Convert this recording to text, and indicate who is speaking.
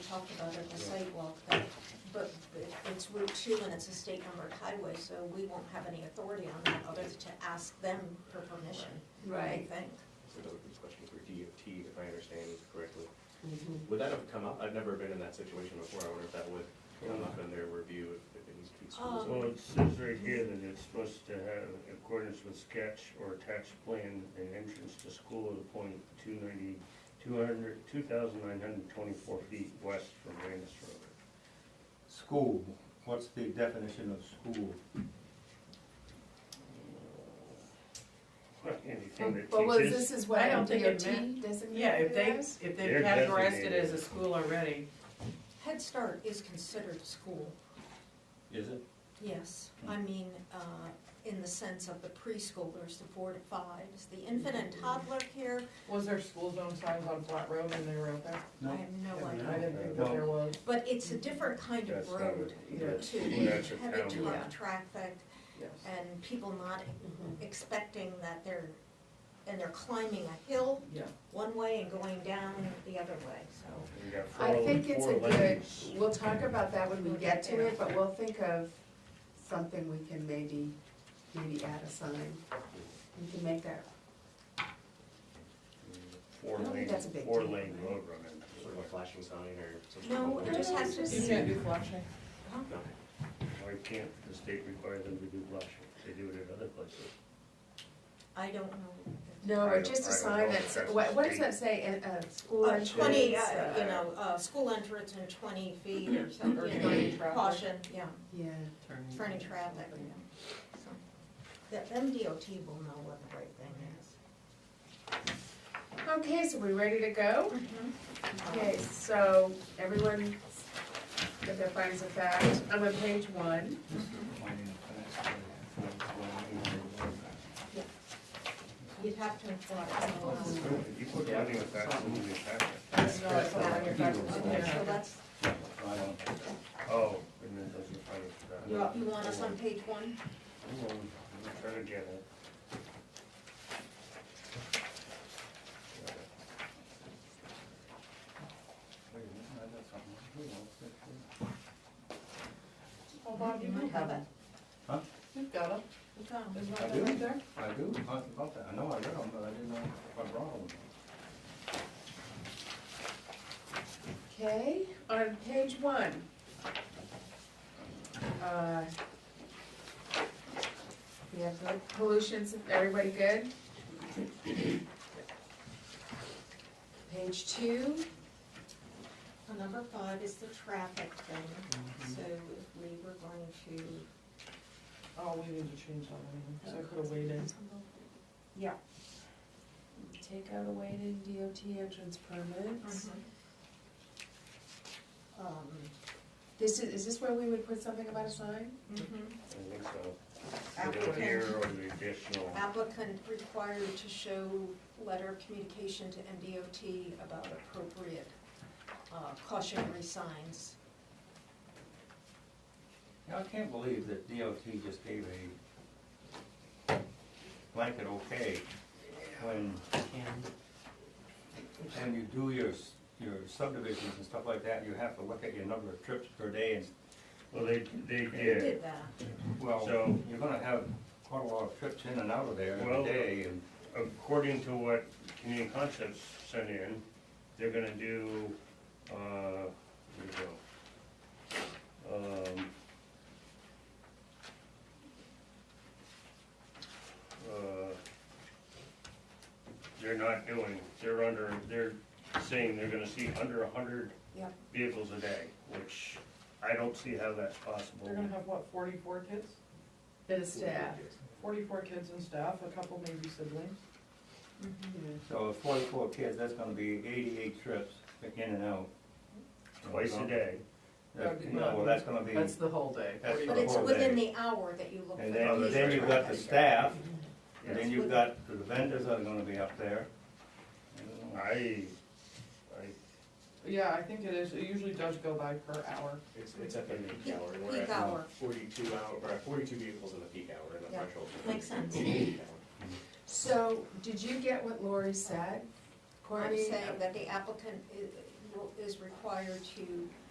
Speaker 1: talked about it in the sidewalk, that, but but it's Route Two and it's a state numbered highway, so we won't have any authority on that other than to ask them for permission, I
Speaker 2: Right.
Speaker 1: think.
Speaker 3: So that would be a question for DOT, if I understand correctly. Would that have come up? I've never been in that situation before. I wonder if that would come up in their review if if it needs to be.
Speaker 1: Um,
Speaker 4: Well, it says right here that it's supposed to have in accordance with sketch or attached plan, an entrance to school at a point two ninety, two hundred, two thousand nine hundred twenty-four feet west from Randus Road.
Speaker 5: School, what's the definition of school?
Speaker 4: Anything that
Speaker 2: Um, But was,
Speaker 4: teaches,
Speaker 2: this is what
Speaker 6: I don't think it
Speaker 2: DOT
Speaker 6: meant-
Speaker 2: designated
Speaker 6: Yeah, if they,
Speaker 2: as?
Speaker 6: if they've
Speaker 4: They're
Speaker 6: categorized it
Speaker 4: designated.
Speaker 6: as a school already,
Speaker 1: Head Start is considered school,
Speaker 5: Is it?
Speaker 1: yes. I mean, uh, in the sense of the preschoolers, the four to fives, the infant and toddler care,
Speaker 7: Was there school zone signs on Flat Road when they were out there?
Speaker 1: I have no
Speaker 5: No.
Speaker 1: idea.
Speaker 7: I didn't think that there was.
Speaker 1: But it's a different kind
Speaker 4: That's
Speaker 1: of
Speaker 4: not
Speaker 1: road, Route
Speaker 4: what- that's-
Speaker 1: Two,
Speaker 4: that's a
Speaker 1: heavy
Speaker 4: town
Speaker 1: ton
Speaker 6: road.
Speaker 1: of traffic,
Speaker 7: Yes.
Speaker 1: and people not
Speaker 4: Mhm.
Speaker 1: expecting that they're, and they're climbing a hill
Speaker 7: Yeah.
Speaker 1: one way and going down the other way, so.
Speaker 4: we got four,
Speaker 2: I think it's
Speaker 4: four
Speaker 2: a good,
Speaker 4: lanes.
Speaker 2: we'll talk about that when we get to it, but we'll think of something we can maybe, maybe add a sign. We can make that,
Speaker 4: Four
Speaker 2: I don't think
Speaker 4: lane,
Speaker 2: that's a big
Speaker 4: four
Speaker 2: deal.
Speaker 4: lane road running.
Speaker 3: Sort of a flashing sign or something.
Speaker 1: No, it just has to
Speaker 7: You
Speaker 1: say,
Speaker 7: can't do flashing.
Speaker 3: No.
Speaker 4: Why can't the state require them to do blushing? They do it at other places.
Speaker 1: I don't know.
Speaker 2: no,
Speaker 4: I
Speaker 2: or
Speaker 4: don't-
Speaker 2: just
Speaker 4: I
Speaker 2: a
Speaker 4: don't
Speaker 2: sign
Speaker 4: know
Speaker 2: that's,
Speaker 4: if that's
Speaker 2: what, what does
Speaker 4: state.
Speaker 2: that say, uh, uh, school
Speaker 1: Uh,
Speaker 2: entrance?
Speaker 1: twenty, uh,
Speaker 2: uh,
Speaker 1: you know, uh, school entrance and twenty feet or something,
Speaker 7: Or
Speaker 1: you
Speaker 7: turning
Speaker 1: know,
Speaker 7: traffic.
Speaker 1: caution, yeah,
Speaker 2: Yeah,
Speaker 1: for any traffic, yeah. So, That, them DOT will know what the right thing is.
Speaker 2: okay, so we ready to go?
Speaker 1: Mm-hmm. Um,
Speaker 2: Okay, so everyone got their findings of fact, I'm on page one.
Speaker 1: You'd have to inform us.
Speaker 4: You put money with that, it's moving
Speaker 7: No,
Speaker 4: faster.
Speaker 7: it's not on your
Speaker 1: So
Speaker 7: facts.
Speaker 1: that's,
Speaker 4: Oh, and then those are funny for that.
Speaker 1: you you want us on page one?
Speaker 4: Hold on, let me Try to get it.
Speaker 7: Oh, Bob, you might have it.
Speaker 5: Huh?
Speaker 7: You've got it.
Speaker 1: It's on.
Speaker 7: Isn't
Speaker 5: I
Speaker 7: that
Speaker 5: do.
Speaker 7: right there?
Speaker 5: I do, I thought that, I know I read them, but I didn't know if I brought them.
Speaker 2: Okay, on page one. uh, We have the pollutions, everybody good? Page two,
Speaker 1: Well, Number five is the traffic thing, so if we were going to.
Speaker 7: Oh, we need to change that one, so I could have waited.
Speaker 2: take out a weighted DOT entrance
Speaker 1: Mm-hmm.
Speaker 2: permits.
Speaker 1: Um,
Speaker 2: This is, is this where we would put something about a sign?
Speaker 4: I think so. Either here
Speaker 1: Applicant,
Speaker 4: or the additional,
Speaker 1: applicant required to show letter of communication to MDOT about appropriate uh, cautionary signs.
Speaker 5: Yeah, I can't believe that DOT just gave a blanket okay when, when you do your, s- your subdivisions and stuff like that, you have to look at your number of trips per day and
Speaker 4: well, they, they
Speaker 1: They
Speaker 4: did.
Speaker 1: Did that.
Speaker 5: Well,
Speaker 4: So-
Speaker 5: you're gonna have quite a lot of trips in and out of there
Speaker 4: Well-
Speaker 5: every day, and
Speaker 4: According to what Community Concepts sent in, they're gonna do, uh, here we go. Um, uh, They're not doing, they're under, they're saying they're gonna see under a hundred
Speaker 1: Yep.
Speaker 4: vehicles a day, which I don't see how that's possible.
Speaker 7: They're gonna have, what, forty-four kids?
Speaker 2: Bit of staff.
Speaker 7: Forty-four kids and staff, a couple maybe siblings.
Speaker 6: Mm-hmm.
Speaker 5: so forty-four kids, that's gonna be eighty-eight trips in and out.
Speaker 4: Twice a day.
Speaker 5: That- Well, that's gonna be,
Speaker 6: that's the whole day.
Speaker 5: That's
Speaker 1: But it's
Speaker 5: Before they-
Speaker 1: within the hour that you look for
Speaker 5: and
Speaker 1: the
Speaker 5: then,
Speaker 1: least
Speaker 5: then you've got the
Speaker 1: traffic.
Speaker 5: staff, and
Speaker 4: Yes.
Speaker 5: then you've got the vendors that are gonna be up there.
Speaker 4: I, I,
Speaker 7: Yeah, I think it is, it usually does go by per hour.
Speaker 3: It's, it's at the peak hour. We're
Speaker 1: Peak
Speaker 3: at
Speaker 1: hour.
Speaker 3: Forty-two hour, or forty-two vehicles in the peak hour in the
Speaker 1: Yeah,
Speaker 3: threshold.
Speaker 1: makes sense.
Speaker 3: Peak hour.
Speaker 2: So, did you get what Lori said?
Speaker 1: I'm
Speaker 2: Courtney?
Speaker 1: saying that the applicant i- is required to